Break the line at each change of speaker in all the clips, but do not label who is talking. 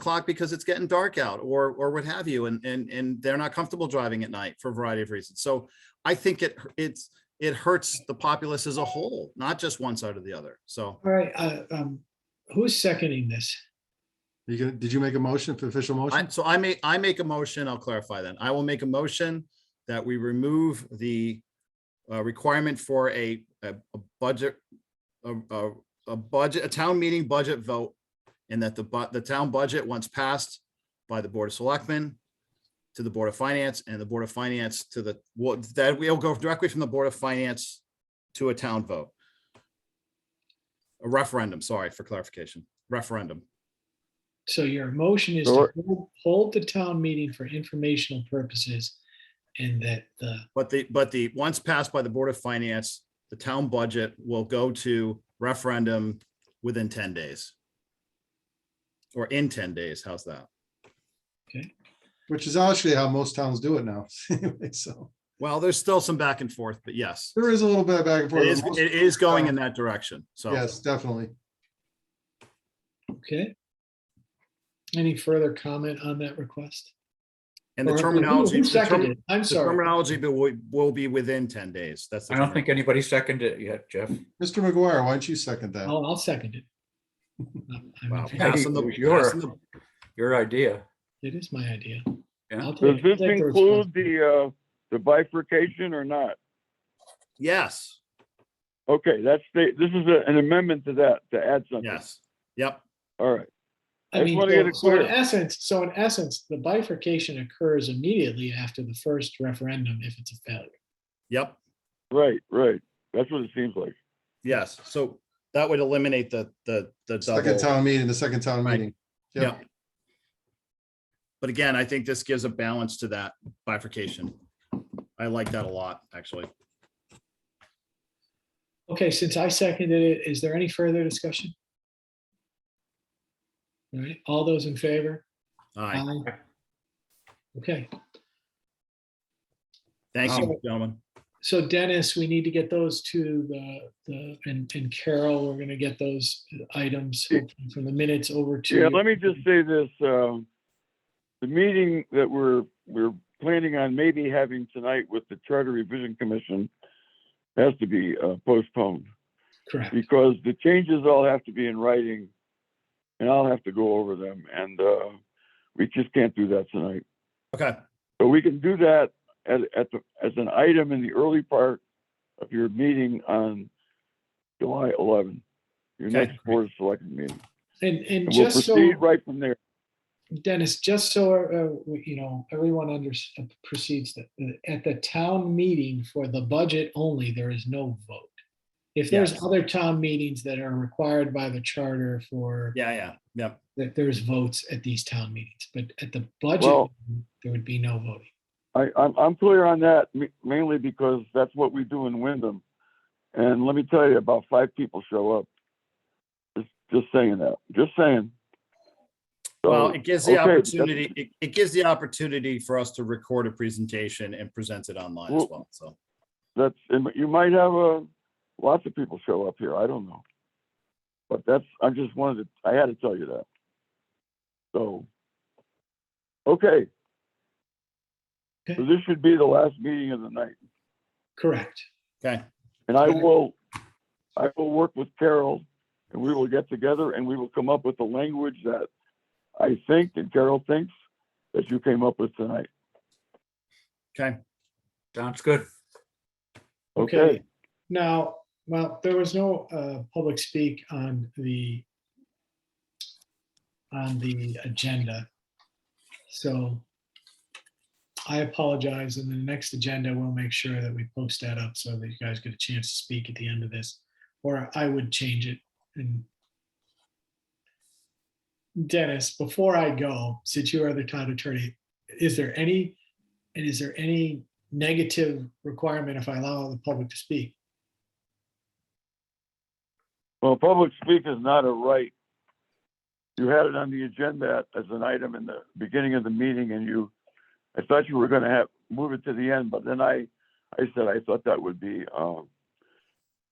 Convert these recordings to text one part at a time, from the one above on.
o'clock because it's getting dark out or, or what have you. And, and, and they're not comfortable driving at night for a variety of reasons. So I think it, it's, it hurts the populace as a whole, not just one side or the other. So
All right, uh, um, who's seconding this?
You gonna, did you make a motion for official
I,
motion?
so I may, I make a motion, I'll clarify then. I will make a motion that we remove the uh, requirement for a, a a budget, a, a, a budget, a town meeting budget vote, and that the, bu- the town budget, once passed by the Board of Selectmen to the Board of Finance and the Board of Finance to the, what, that we'll go directly from the Board of Finance to a town vote. A referendum, sorry for clarification, referendum.
So your motion is to
Sure.
hold- hold the town meeting for informational purposes and that uh, the,
But the, but the, once passed by the Board of Finance, the town budget will go to referendum within ten days. Or in ten days, how's that?
Which is actually how most towns do it now. So
Well, there's still some back and forth, but yes,
there is a little bit of back and forth.
it is,
but most-
it is going in that direction, so.
Yes, definitely.
okay? Any further comment on that request?
And the
Or who-
terminology,
who
the term-
seconded it? I'm
the
sorry.
terminology will, will be within ten days, that's. the
I don't
term.
think anybody seconded it yet, Jeff.
Mr. McGuire, why don't you second that?
I'll, I'll second it. I'm- I'm-
Wow,
think
passing the-
it was your-
passing the-
Your idea.
It is my idea.
Yeah.
I'll
Does
take- I'll
this
take the
include the, uh, the bifurcation or not?
Yes,
Okay, that's the, this is a- an amendment to that, to add something.
yes, yep,
All right,
I
I
mean,
just wanna get it
so- so in
clear.
essence, so in essence, the bifurcation occurs immediately after the first referendum if it's a failure.
yep,
right, right. That's what it seems like.
yes, so that would eliminate the, the, the double.
Second town meeting, the second town
Right.
meeting.
Yeah. But again, I think this gives a balance to that bifurcation. I like that a lot, actually.
Okay, since I seconded it, is there any further discussion? All right, all those in favor?
Aye,
Aye. Okay,
thank you, gentlemen.
so Dennis, we need to get those to the, the, and, and Carol, we're gonna get those items hopefully from the minutes over to.
Yeah,
you.
let me just say this, um, the meeting that we're, we're planning on maybe having tonight with the Charter Revision Commission has to be uh, postponed
Correct,
because the changes all have to be in writing and I'll have to go over them and, uh, we just can't do that tonight.
Okay,
But we can do that at, at the, as an item in the early part of your meeting on July 11, your
Okay.
next board of selectmen meeting.
and, and
And we'll
just so.
proceed right from there.
Dennis, just so, uh, we- you know, everyone under, proceeds that, uh, at the town meeting for the budget only, there is no vote. If there's
Yes.
other town meetings that are required by the charter for,
yeah, yeah, yeah.
that there's votes at these town meetings, but at the budget,
Well-
there would be no voting.
I, I'm, I'm clear on that ma- mainly because that's what we do in Wyndham. And let me tell you, about five people show up. Just, just saying that, just saying. So,
Well, it gives the
okay, that's-
opportunity, it, it gives the opportunity for us to record a presentation and present it online as
Well-
well, so.
that's, and you might have a, lots of people show up here, I don't know. But that's, I just wanted to, I had to tell you that. So, okay. So this should be the last meeting of the night,
Correct.
Okay,
and I will, I will work with Carol, and we will get together and we will come up with the language that I think and Carol thinks that you came up with tonight,
okay,
Sounds good.
okay?
Now, well, there was no uh, public speak on the on the agenda. So I apologize. In the next agenda, we'll make sure that we post that up so that you guys get a chance to speak at the end of this. Or I would change it and Dennis, before I go, since you are the town attorney, is there any, and is there any negative requirement if I allow the public to speak?
Well, public speak is not a right. You had it on the agenda as an item in the beginning of the meeting and you, I thought you were gonna have, move it to the end, but then I, I said I thought that would be, um,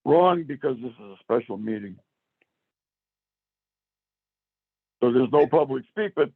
wrong because this is a special meeting. So there's no public speak, but